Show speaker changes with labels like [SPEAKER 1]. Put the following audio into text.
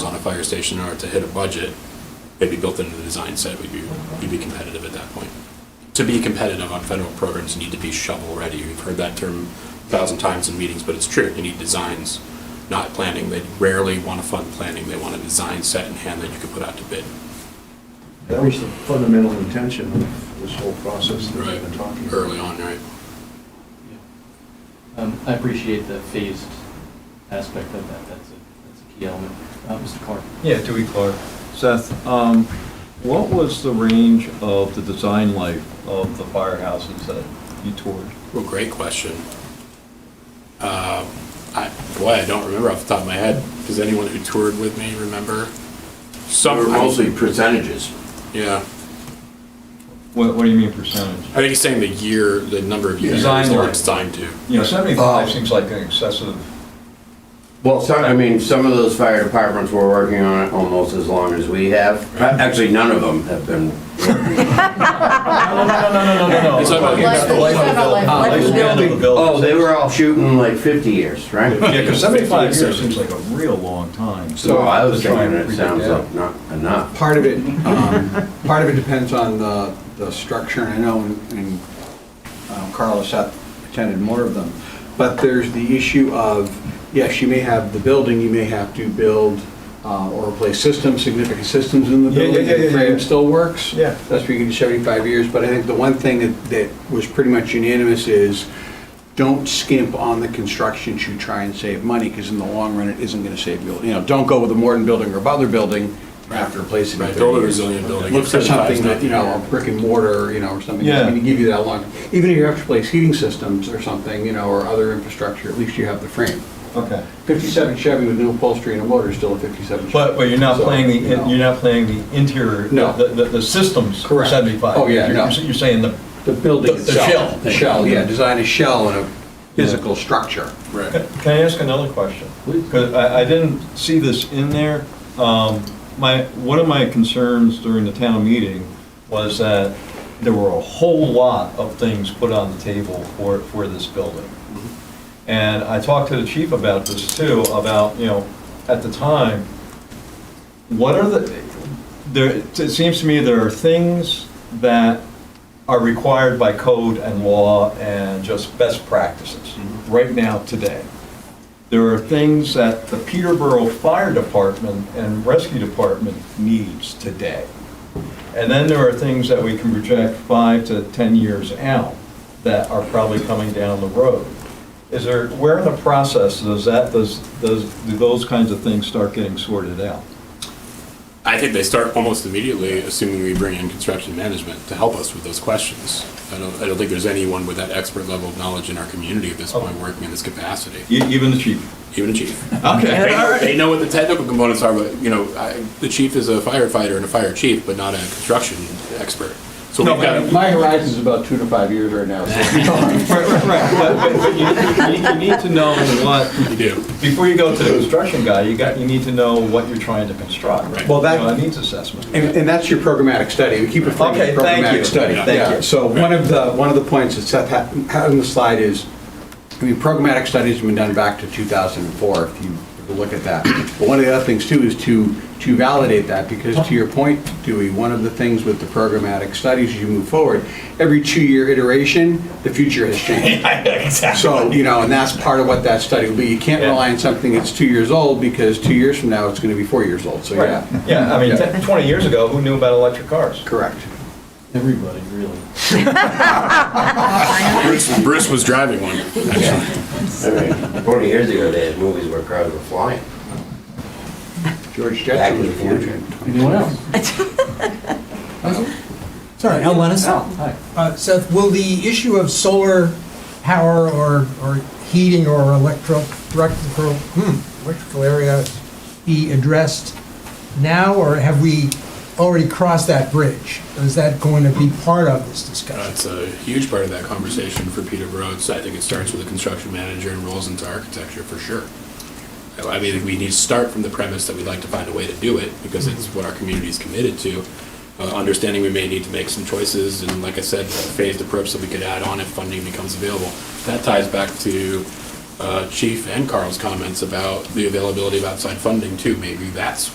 [SPEAKER 1] fire station in order to hit a budget, maybe built into the design set, we'd be, we'd be competitive at that point. To be competitive on federal programs, you need to be shovel-ready. We've heard that term a thousand times in meetings, but it's true. You need designs, not planning. They rarely want to fund planning. They want a design set in hand that you can put out to bid.
[SPEAKER 2] That was the fundamental intention of this whole process that we've been talking about.
[SPEAKER 1] Early on, right?
[SPEAKER 3] Um, I appreciate the phased aspect of that, that's a, that's a key element. Uh, Mr. Clark?
[SPEAKER 4] Yeah, Dewey Clark.
[SPEAKER 5] Seth, um, what was the range of the design life of the firehouses that you toured?
[SPEAKER 1] Well, great question. Uh, I, boy, I don't remember off the top of my head. Does anyone who toured with me remember? Some,
[SPEAKER 6] They're
[SPEAKER 1] I-
[SPEAKER 6] mostly percentages.
[SPEAKER 1] Yeah.
[SPEAKER 5] What, what do you mean percentage?
[SPEAKER 1] I think he's saying the year, the number of years
[SPEAKER 5] Design
[SPEAKER 1] that
[SPEAKER 5] life.
[SPEAKER 1] it's timed to.
[SPEAKER 5] You know, seventy-five
[SPEAKER 6] Oh.
[SPEAKER 5] seems like an excessive,
[SPEAKER 6] Well, some, I mean, some of those fire departments were working on it almost as long as we have. Uh, Actually, none of them have been.
[SPEAKER 4] No, no, no, no, no, no.
[SPEAKER 1] It's about-
[SPEAKER 4] Talking about the life of
[SPEAKER 7] Life-
[SPEAKER 4] the building.
[SPEAKER 7] life- life-
[SPEAKER 5] Lifespan of a building.
[SPEAKER 6] Oh, they were all shooting like 50 years, right?
[SPEAKER 5] Yeah, because seventy-five years seems like a real long time.
[SPEAKER 6] So I was
[SPEAKER 5] To try
[SPEAKER 6] thinking
[SPEAKER 5] and
[SPEAKER 6] it
[SPEAKER 5] predict
[SPEAKER 6] sounds
[SPEAKER 5] that.
[SPEAKER 6] like not enough.
[SPEAKER 8] Part of it, um, part of it depends on the, the structure, and I know, and um, Carla sat, attended more of them. But there's the issue of, yes, you may have the building, you may have to build uh, or replace systems, significant systems in the
[SPEAKER 4] Yeah, yeah,
[SPEAKER 8] building.
[SPEAKER 4] yeah, yeah,
[SPEAKER 8] The frame
[SPEAKER 4] yeah.
[SPEAKER 8] still works.
[SPEAKER 4] Yeah.
[SPEAKER 8] That's where you can do 75 years, but I think the one thing that, that was pretty much unanimous is, don't skimp on the construction to try and save money, because in the long run, it isn't gonna save you, you know, don't go with a Morton building or a Butler building after replacing it.
[SPEAKER 1] Right,
[SPEAKER 8] in
[SPEAKER 1] build a
[SPEAKER 8] 30 years.
[SPEAKER 1] resilient building.
[SPEAKER 8] Look for
[SPEAKER 1] 75 is
[SPEAKER 8] something that, you
[SPEAKER 1] not the
[SPEAKER 8] know, a brick and mortar, you know, or something that's
[SPEAKER 5] Yeah.
[SPEAKER 8] gonna give you that long, even if you have to replace heating systems or something, you know, or other infrastructure, at least you have the frame.
[SPEAKER 5] Okay.
[SPEAKER 8] Fifty-seven Chevy with no upholstery and a motor is still a fifty-seven Chevy.
[SPEAKER 5] But, but you're not
[SPEAKER 8] So,
[SPEAKER 5] playing the,
[SPEAKER 8] you know,
[SPEAKER 5] you're not playing the interior,
[SPEAKER 8] No.
[SPEAKER 5] the, the, the systems
[SPEAKER 8] Correct.
[SPEAKER 5] seventy-five.
[SPEAKER 8] Oh, yeah,
[SPEAKER 5] You're-
[SPEAKER 8] no.
[SPEAKER 5] You're saying the,
[SPEAKER 8] The building
[SPEAKER 5] the- the shell.
[SPEAKER 8] itself. Shell, yeah, design a shell and a physical structure.
[SPEAKER 1] Right.
[SPEAKER 5] Can I ask another question?
[SPEAKER 3] Please.
[SPEAKER 5] Because I, I didn't see this in there. Um, My, one of my concerns during the town meeting was that there were a whole lot of things put on the table for, for this building. And I talked to the chief about this too, about, you know, at the time, what are the, there, it seems to me there are things that are required by code and law and just best practices right now, today. There are things that the Peterborough Fire Department and Rescue Department needs today. And then there are things that we can project five to 10 years out that are probably coming down the road. Is there, where in the process does that, does, does, do those kinds of things start getting sorted out?
[SPEAKER 1] I think they start almost immediately, assuming we bring in construction management to help us with those questions. I don't, I don't think there's anyone with that expert level of knowledge in our community at this point working in this capacity,
[SPEAKER 5] E- Even the chief?
[SPEAKER 1] even a chief.
[SPEAKER 5] Oh. Okay, all
[SPEAKER 1] They-
[SPEAKER 5] right.
[SPEAKER 1] They know what the technical components are, but, you know, I, the chief is a firefighter and a fire chief, but not a construction expert. So
[SPEAKER 5] No,
[SPEAKER 1] we've got,
[SPEAKER 8] My horizon's about two to five years right now, so.
[SPEAKER 5] Right, right, right. But- but- but you- you- You need to know what
[SPEAKER 1] you do.
[SPEAKER 5] Before you go to the construction guy, you got, you need to know what you're trying to construct.
[SPEAKER 1] Right.
[SPEAKER 8] Well, that-
[SPEAKER 5] You know, a needs assessment.
[SPEAKER 8] And, and that's your programmatic study, we keep it from
[SPEAKER 5] Okay,
[SPEAKER 8] a
[SPEAKER 5] thank you.
[SPEAKER 8] programmatic study.
[SPEAKER 5] Yeah, thank
[SPEAKER 8] Yeah.
[SPEAKER 5] you.
[SPEAKER 8] So one of the, one of the points that Seth had had on the slide is, I mean, programmatic studies have been done back to 2004, if you look at that. But one of the other things too is to, to validate that, because to your point, Dewey, one of the things with the programmatic studies, as you move forward, every two-year iteration, the future has changed. So, you know, and that's part of what that study will be. You can't rely on something that's two years old, because two years from now, it's gonna be four years old, so
[SPEAKER 5] Right.
[SPEAKER 8] yeah.
[SPEAKER 5] Yeah, I mean, ten- 20 years ago, who knew about electric cars?
[SPEAKER 8] Correct.
[SPEAKER 3] Everybody, really.
[SPEAKER 1] Bruce, Bruce was driving one.
[SPEAKER 6] I mean, 40 years ago, they had movies where cars were flying.
[SPEAKER 8] George
[SPEAKER 6] Back
[SPEAKER 8] Jetson
[SPEAKER 6] to
[SPEAKER 8] was
[SPEAKER 6] the
[SPEAKER 8] a fortune.
[SPEAKER 6] future.
[SPEAKER 3] Anyone else?
[SPEAKER 9] Sorry, Al Lennis.
[SPEAKER 3] Al, hi.
[SPEAKER 9] Uh, Seth, will the issue of solar power or, or heating or electro, electrical, hmm, electrical area be addressed now, or have we already crossed that bridge? Is that going to be part of this
[SPEAKER 1] Uh,
[SPEAKER 9] discussion?
[SPEAKER 1] It's a huge part of that conversation for Peterborough. It's- I think it starts with the construction manager and rolls into architecture for sure. I- I mean, we need to start from the premise that we'd like to find a way to do it because it's what our community is committed to. Uh, Understanding we may need to make some choices and like I said, a phased approach that we could add on if funding becomes available. That ties back to uh, Chief and Carl's comments about the availability of outside funding too. Maybe that's